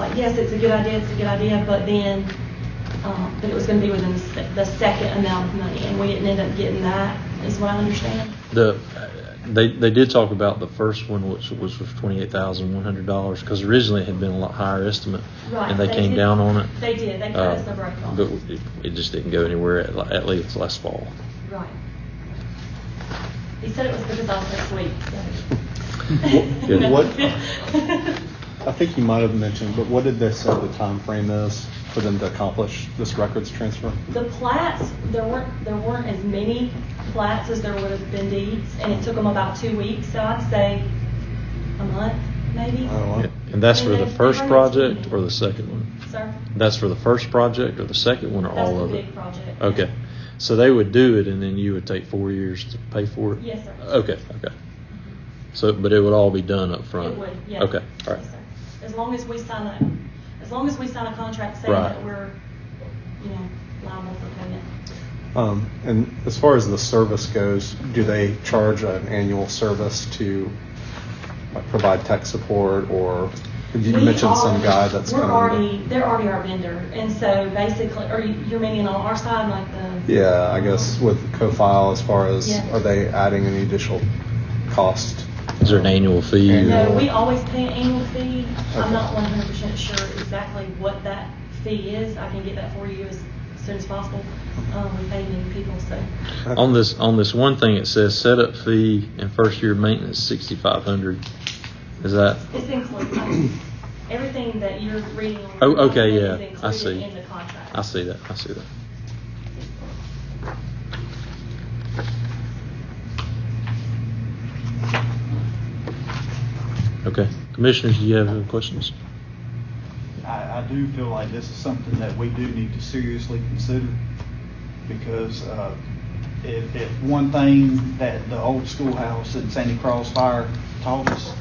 uh, yes, it's a good idea, it's a good idea, but then, um, but it was gonna be within the se- the second amount of money, and we didn't end up getting that, is what I understand. The, they, they did talk about the first one, which was was twenty-eight thousand one hundred dollars, because originally it had been a lot higher estimate. Right, And they they came did- down on it. they did. They cut Uh, us the break on it. But it, it just didn't go anywhere, at, at least last fall. Right. He said it was because I was this week, so. Yeah. No. What- I think you might have mentioned, but what did they say the time frame is for them to accomplish this records transfer? The plats, there weren't, there weren't as many plats as there would have been deeds, and it took them about two weeks, so I'd say a month, maybe? Oh, wow. And that's for And the they- they first haven't project seen it. or the second one? Sir? That's for the first project or the second one or That's all the of it? big project. Okay. So they would do it and then you would take four years to pay for it? Yes, sir. Okay, okay. So, but it would all be done up Oh, front? It would, yeah. Okay, all right. Yes, sir. As long as we sign a, as long as we sign a contract saying Right. that we're, you know, liable for payment. Um, and as far as the service goes, do they charge an annual service to like, provide tech support or you We mentioned some are- guy that's We're kind already, of they're already our vendor, and so basically, or you- you're meaning on our side, like the? yeah, I guess with CoFile as far as Yeah. are they adding any additional cost? Is there an annual fee? or- No, we always pay an annual fee. I'm Okay. not one hundred percent sure exactly what that fee is. I can get that for you as soon as possible. Um, we pay many people, so. Uh, On this, on this one thing, it says setup fee and first year maintenance, sixty-five hundred. Is that, It's included. Everything that you're reading. on Oh, the okay, contract yeah, is I included see. In the contract. I see that, I see that. Okay, commissioners, do you have any questions? I, I do feel like this is something that we do need to seriously consider because uh, if, if one thing that the old schoolhouse in Sandy Cross Fire taught us is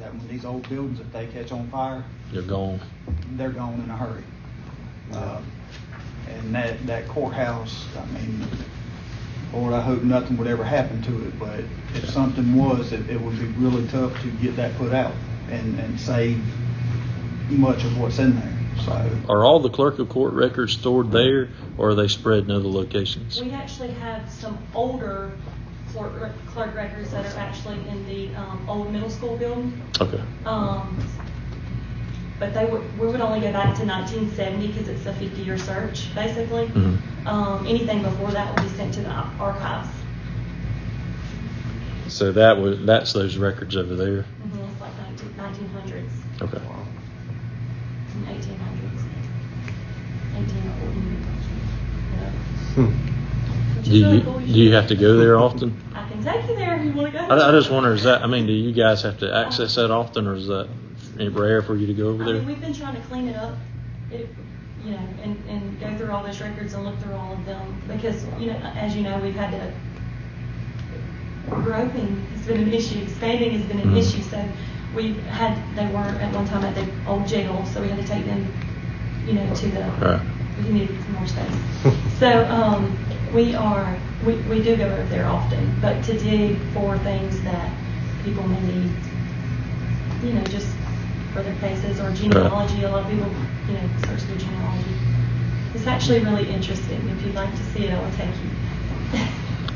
that when these old buildings, if they catch on fire, You're gone. they're gone in a hurry. Uh, And that, that courthouse, I mean, Lord, I hope nothing would ever happen to it, but if something was, it, it would be really tough to get that put out and, and save much of what's in there, so. Are all the clerk of court records stored there, or are they spread in other locations? We actually have some older clerk rec- clerk records that are actually in the um, old middle school building. Okay, Um, But they would, we would only go back to 1970 because it's a 50-year search, basically. Mhm. Um, Anything before that will be sent to the ar- archives. so that was, that's those records over there? Mhm, It's like 19 1900s Okay. and 1800s. 1840s. Yeah. hmm. Which Do is really you, cool. do you have to go there often? I can take you there if you want to go. I, I just wonder, is that, I mean, do you guys have to access that often, or is that rare for you to go over I mean, there? we've been trying to clean it up, it, you know, and, and go through all those records and look through all of them, because, you know, as you know, we've had to, groping has been an issue, expanding has been an Mhm. issue, so we've had, they were at one time at the old jail, so we had to take them, you know, to the, Right. we needed some more space. So, um, we are, we, we do go over there often, but to dig for things that people may need, you know, just for their faces or genealogy, a lot of people, you know, search their genealogy. It's actually really interesting, if you'd like to see it, I will take you.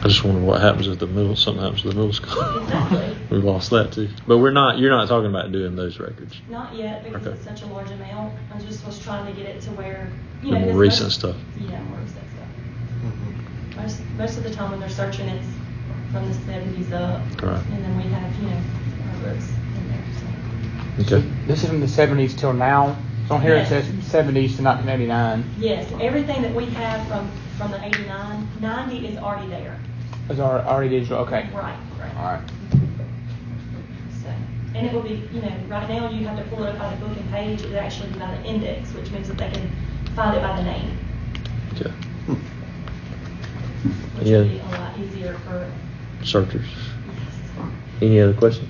I just wonder what happens if the middle, something happens to the middle school. Exactly. We lost that too. But we're not, you're not talking about doing those records. Not yet, because Okay. it's such a large amount, I just was trying to get it to where, you The know. more 'cause recent most- stuff. Yeah, more recent stuff. Most, most of the time when they're searching, it's from the seventies up. Correct. And then we have, you know, our books in there, so. Okay. This is from the seventies till now. So on here Yes. it says seventies to nineteen eighty-nine. Yes, everything that we have from, from the 89, 90 is already there. It's al- already digital, okay. Right, All right. right. So, And it will be, you know, right now you have to pull it up by the book and page, it's actually by the index, which means that they can find it by the name, Okay. which will Yeah. be a lot easier for, Searchers. yes. Any other questions?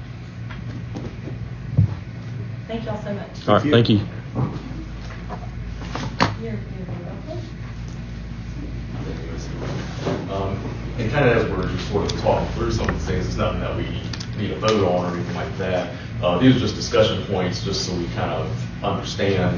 Thank y'all so much. All right, thank you. You're, you're welcome. Um, And kind of as we're just sort of talking through some of these things, it's nothing that we need a vote on or anything like that. Uh, These are just discussion points, just so we kind of understand